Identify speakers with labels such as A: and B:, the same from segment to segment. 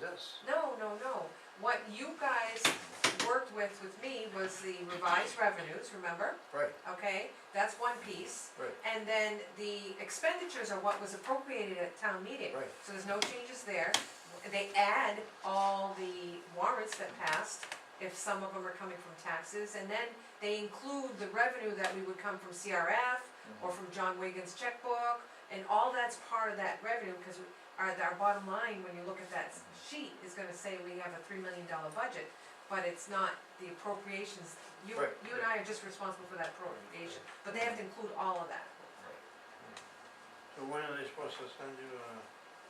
A: this.
B: No, no, no. What you guys worked with with me was the revised revenues, remember?
A: Right,
B: Okay, that's one piece.
A: right,
B: And then the expenditures are what was appropriated at town meeting.
A: Right.
B: So there's no changes there. They add all the warrants that passed, if some of them are coming from taxes. And then they include the revenue that we would come from CRF or
A: Mm-hmm.
B: from John Wigan's checkbook. And all that's part of that revenue, because our, our bottom line, when you look at that sheet, is gonna say we have a three million dollar budget, but it's not the appropriations. You,
A: Right,
B: you and I are just responsible for that appropriation, but they have to include all of that.
A: so when are they supposed to send you,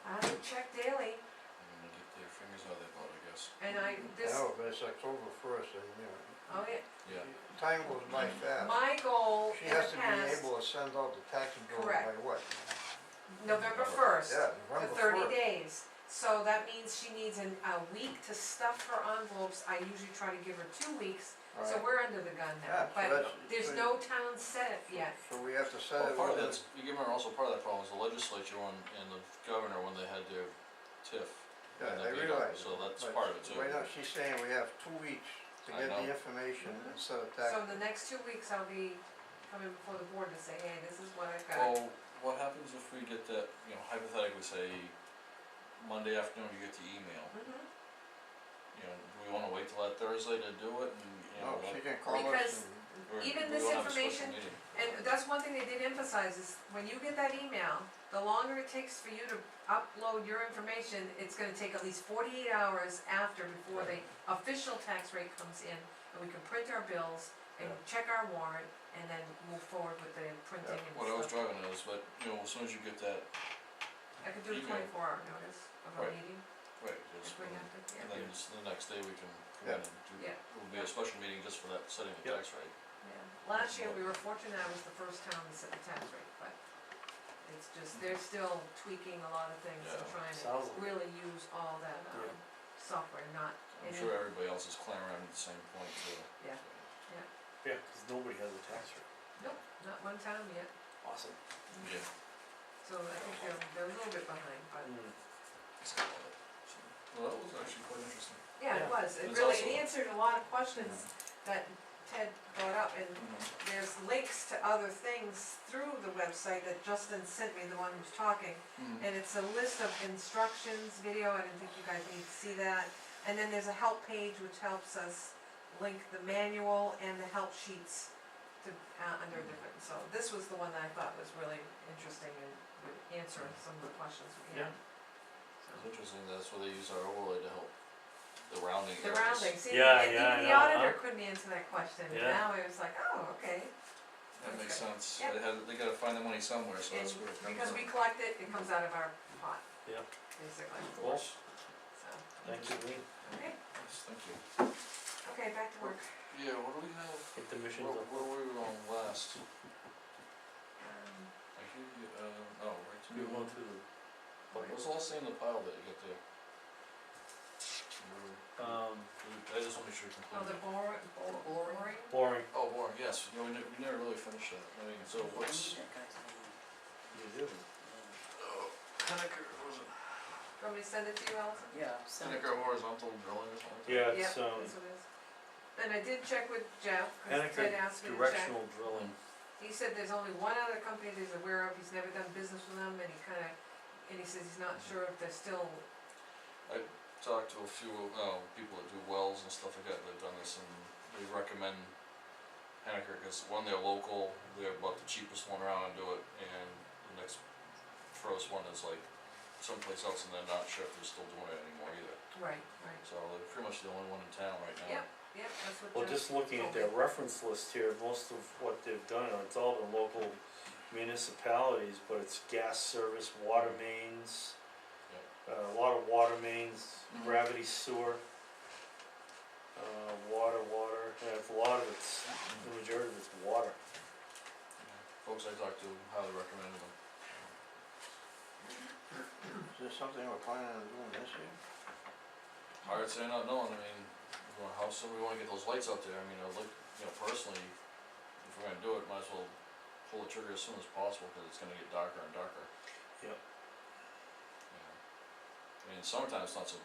A: uh,
B: I check daily,
C: They're gonna get their fingers out of their butt, I guess.
B: and I, this,
A: oh, but it's October first and, you know.
B: oh yeah,
C: Yeah,
A: Time goes by fast.
B: Mm-hmm. my goal
A: She
B: in the
A: has
B: past.
A: to be able to send out the tax bill by
B: Correct.
A: what?
B: November first,
A: Oh, Yeah,
B: the
A: November
B: thirty
A: first.
B: days, so that means she needs an, a week to stuff her envelopes, I usually try to give her two weeks,
A: All right.
B: so we're under the gun
A: Yeah,
B: now,
A: so
B: but
A: that's-
B: there's
A: so-
B: no town setup yet.
A: So we have to set
C: well,
A: it.
C: part of
A: with
C: that's, you remember also part of that problem is the legislature and, and the governor when they had their tiff.
A: Yeah, I
C: and the big-
A: realize
C: So
A: it,
C: that's
A: but
C: part of it too.
A: Wait, no, she's saying we have two weeks to get
C: I
A: the
C: know.
A: information
B: Mhm.
A: instead of tax.
B: So the next two weeks, I'll be coming before the board to say, hey, this is what I've
A: Oh.
B: got.
C: Well, what happens if we get that, you know, hypothetically say Monday afternoon you get the email,
B: Mhm.
C: you know, do we wanna wait till that Thursday to do it and, you
A: No,
C: know,
A: Oh, she
C: what-
A: can call us
B: Because-
A: and,
C: we're, we
B: Even
C: don't
B: this
C: have a special
B: information,
C: meeting.
B: And that's one thing they did emphasize is when you get that email, the longer it takes for you to upload your information, it's gonna take at least forty-eight hours after before the official tax rate comes in and we can print our bills and
C: Yeah.
B: check our warrant and then move forward with the printing and
C: What I was
B: stuff.
C: driving at is, but, you know, as soon as you get that,
B: I could do a
C: email.
B: twenty-four hour notice of a
C: Right.
B: meeting
C: right, just,
B: if we have to,
C: and
B: yeah,
C: then just the next day we can come in and do,
B: Yeah.
C: it'll be a special meeting just for that, setting the
A: Yeah.
C: tax rate.
B: yeah. Last year, we were fortunate I was the first town to set the tax rate, but it's just, they're still tweaking a lot of things and
C: Yeah.
B: trying
D: Sounds-
B: to really use all that, um,
D: Yeah.
B: software, not
C: I'm
B: Mhm.
C: sure everybody else is clamoring around at the same point too.
B: Yeah.
D: Yeah, cause nobody has a tax rate.
B: Nope, not one town yet,
D: Awesome.
C: Yeah.
B: so I think they're, they're a little bit behind, but,
C: Mm. it's got all that. So, Well, that was actually quite interesting.
B: yeah,
D: Yeah.
B: it was, it
C: It's
B: really,
C: also-
B: it answered a lot of questions that Ted brought up, and
C: Mm-hmm.
B: there's links to other things through the website that Justin sent me, the one who's talking,
C: Mhm.
B: and it's a list of instructions, video, I didn't think you guys need to see that, and then there's a help page which helps us link the manual and the help sheets to, uh, under different, so this was the one that I thought was really interesting and would answer some of the questions we had.
D: Yeah.
B: So.
C: It's interesting, that's where they use our overlay to help the rounding
B: The
C: errors.
B: rounding, see,
D: Yeah,
B: and
D: yeah, I
B: even the
D: know, huh?
B: auditor couldn't answer that question, and
D: Yeah.
B: now it was like, oh, okay,
C: That makes sense,
B: Yeah.
C: they had, they gotta find the money somewhere, so
B: and
C: that's where it comes
B: because
C: up.
B: we collect it, it comes out of our pot,
D: Yeah,
B: basically,
C: Of course,
B: so,
D: thank you, Lean.
B: okay,
C: yes, thank you.
B: okay, back to work.
C: Yeah, what do we have,
D: Hit the missions
C: where,
D: up.
C: where were we on last?
B: Um,
C: I hear you, uh, oh, right to
D: We
C: new one.
D: went through
C: What
D: the,
C: was the last thing in the pile that you got there? Remember?
D: um,
C: I just wanna make sure you
B: Oh, the
C: complete it.
B: bor- bor-
E: Boring.
B: boring?
D: boring.
C: Oh, Warren, yes, you know, we never, we never really finished that, I mean, so what's,
D: You do.
C: uh, Hennecker, was
B: Do you
C: it
B: want me to send it to you, Allison?
E: Yeah, send it.
C: Hennecker horizontal drilling or something?
D: Yeah, it's,
B: Yep,
D: um,
B: that's what it is. And I did check with Jeff, cause
D: Hennecker
B: Ted asked me to check.
D: directional drilling.
B: He said there's only one other company that he's aware of, he's never done business with them, and he kinda, and he says he's not sure if they're still,
C: talked to a few, uh, people that do wells and stuff like that, they've done this, and they recommend Hennecker, cause one, they're local, they're about the cheapest one around and do it, and the next froze one is like someplace else, and they're not sure if they're still doing it anymore either,
B: right, right,
C: so they're pretty much the only one in town right now.
B: Yep. yep, that's what Jeff.
D: Well, just looking at their reference list here, most of what they've done, it's all the local municipalities, but it's gas service, water
C: Mm.
D: mains. Uh, a lot of water mains,
C: Mhm.
D: gravity sewer. Uh, water, water, and it's a lot of it's, the majority of it's water.
C: Folks I talked to highly recommended them.
A: is this something we're planning on doing this year?
C: Hard to say not knowing, I mean, you know, how soon we wanna get those lights out there, I mean, I would like, you know, personally, if we're gonna do it, might as well pull the trigger as soon as possible, cause it's gonna get darker and darker.
D: Yep.
C: You know. I mean, in summertime, it's not so